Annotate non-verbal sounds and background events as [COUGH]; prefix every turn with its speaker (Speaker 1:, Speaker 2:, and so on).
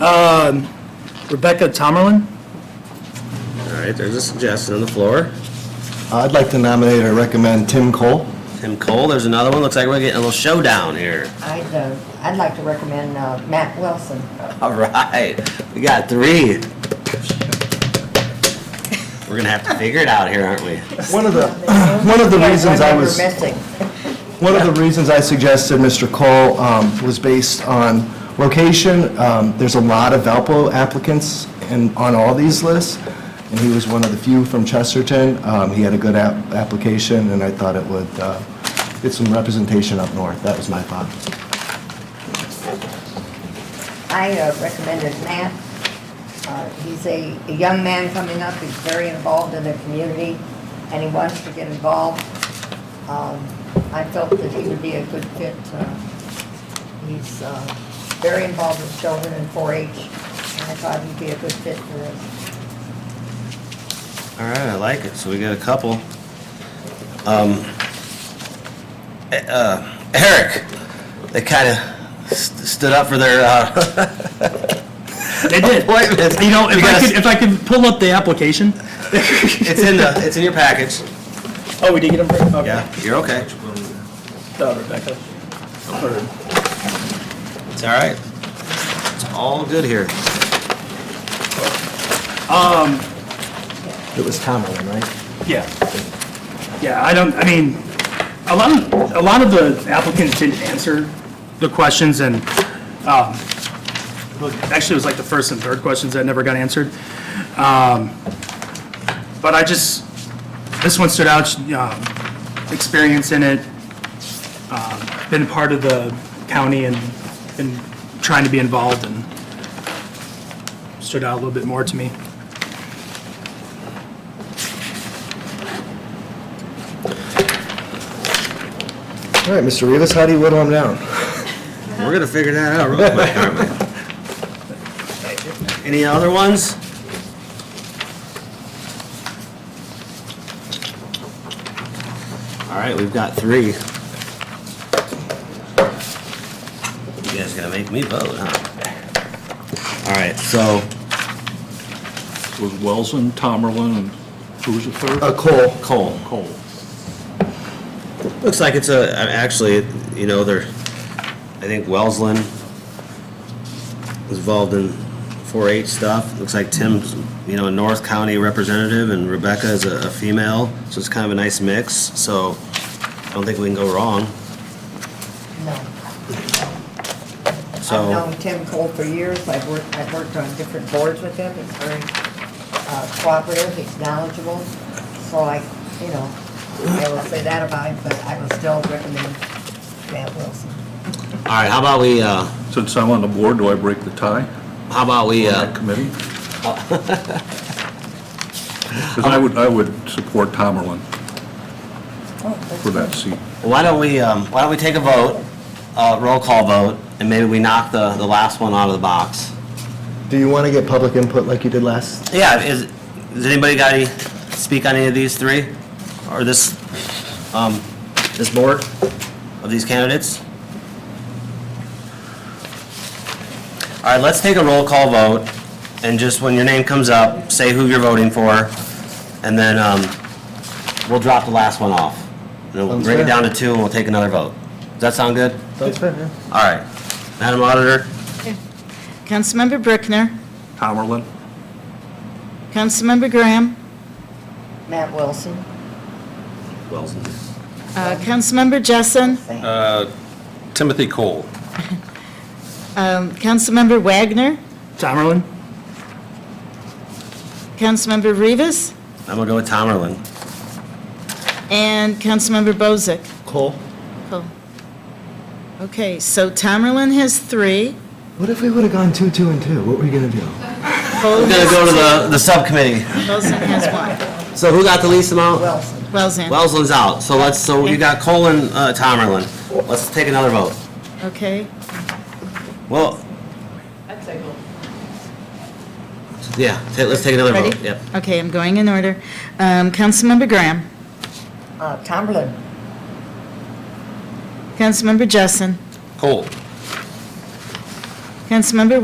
Speaker 1: Um, Rebecca Tomerlin?
Speaker 2: All right, there's a suggestion on the floor.
Speaker 3: Uh, I'd like to nominate or recommend Tim Cole.
Speaker 2: Tim Cole, there's another one. Looks like we're getting a little showdown here. [LAUGHS]
Speaker 4: I'd, uh, I'd like to recommend uh, Matt Wilson.
Speaker 2: All right, we got three. We're gonna have to figure it out here, aren't we?
Speaker 3: One of the, [CLEARS THROAT] one of the reasons I was,
Speaker 4: One member missing.
Speaker 3: one of the reasons I suggested Mr. Cole um, was based on location. Um, There's a lot of Valpo applicants and on all these lists, and he was one of the few from Chesterton. Um, He had a good app- application, and I thought it would uh, get some representation up north. That was my thought.
Speaker 4: I uh, recommended Matt. Uh, He's a a young man coming up, he's very involved in the community, and he wants to get involved. Um, I felt that he would be a good fit. uh, He's uh, very involved with children in 4-H, and I thought he'd be a good fit for us.
Speaker 2: All right, I like it. So we got a couple. Um, eh, uh, Eric, they kind of st- stood up for their uh, [LAUGHS]
Speaker 1: They [LAUGHS] did.
Speaker 2: appointments.
Speaker 1: You know, if I
Speaker 2: Because
Speaker 1: could, if I could pull up the application. [LAUGHS]
Speaker 2: it's in the it's in your package.
Speaker 1: Oh, we did get them? Okay.
Speaker 2: Yeah, you're okay.
Speaker 1: Oh, Rebecca. Or-
Speaker 2: It's all right. It's all good here.
Speaker 3: It was Tomlin, right?
Speaker 1: Yeah. Yeah, I don't, I mean, a lot of, a lot of the applicants didn't answer the questions and, um, look, actually, it was like the first and third questions that never got answered. Um, But I just, this one stood out, um, experience in it, um, been part of the county and, and trying to be involved and stood out a little bit more to me.
Speaker 3: All right, Mr. Rivas, how do you whittle him down?
Speaker 2: We're gonna figure that out real quick, aren't
Speaker 5: [LAUGHS]
Speaker 2: we? Any other ones? All right, we've got three. You guys gotta make me vote, huh? All right, so,
Speaker 5: was Wellesley, Tomerlin, and who was the third?
Speaker 3: Uh, Cole.
Speaker 2: Cole.
Speaker 5: Cole.
Speaker 2: Looks like it's a, uh, actually, you know, they're, I think Wellsland was involved in 4-H stuff. Looks like Tim's, you know, a North County representative and Rebecca is a a female, so it's kind of a nice mix. So I don't think we can go wrong.
Speaker 4: No. I've
Speaker 2: So,
Speaker 4: known Tim Cole for years, I've worked, I've worked on different boards with him, he's very uh, cooperative, he's knowledgeable, so I, you know, I will say that about him, but I will still recommend Matt Wilson.
Speaker 2: all right, how about we, uh,
Speaker 5: Since I'm on the board, do I break the tie?
Speaker 2: how about we,
Speaker 5: on that
Speaker 2: uh,
Speaker 5: committee? Because I would, I would support Tomerlin for that seat.
Speaker 2: why don't we, um, why don't we take a vote, uh, roll call vote, and maybe we knock the, the last one out of the box?
Speaker 3: Do you want to get public input like you did last
Speaker 2: Yeah, is, does anybody got any, speak on any of these three? Or this, um, this board of these candidates? All right, let's take a roll call vote, and just when your name comes up, say who you're voting for, and then, um, we'll drop the last one off. And then we'll
Speaker 3: Sounds
Speaker 2: bring it
Speaker 3: fair.
Speaker 2: down to two, and we'll take another vote. Does that sound good?
Speaker 3: That's fair, yeah.
Speaker 2: All right. Madam Auditor?
Speaker 6: Councilmember Brickner,
Speaker 5: Tomerlin?
Speaker 6: Councilmember Graham,
Speaker 4: Matt Wilson,
Speaker 2: Wells.
Speaker 6: uh, Councilmember Jessen,
Speaker 4: Sam.
Speaker 7: Timothy Cole.
Speaker 6: um, Councilmember Wagner,
Speaker 1: Tomerlin?
Speaker 6: Councilmember Rivas,
Speaker 2: I'm gonna go with Tomerlin.
Speaker 6: and Councilmember Bozick.
Speaker 3: Cole,
Speaker 6: Cool. Okay, so Tamerlan has three.
Speaker 3: what if we would have gone two, two, and two? What were you gonna do?
Speaker 6: Cole
Speaker 2: We're gonna
Speaker 6: has,
Speaker 2: go to the, the subcommittee.
Speaker 6: Bozick has one.
Speaker 2: So who got the least amount?
Speaker 4: Wilson,
Speaker 6: Wellsand,
Speaker 2: Wellsland's out, so let's, so you got Cole and uh, Tomerlin. Let's take another vote.
Speaker 6: okay.
Speaker 2: Well. I'd say Yeah, ta- let's take another vote,
Speaker 6: Ready?
Speaker 2: yep.
Speaker 6: Okay, I'm going in order. Um, Councilmember Graham,
Speaker 4: uh, Tomberlin,
Speaker 6: Councilmember Jessen,
Speaker 7: Cole.
Speaker 6: Councilmember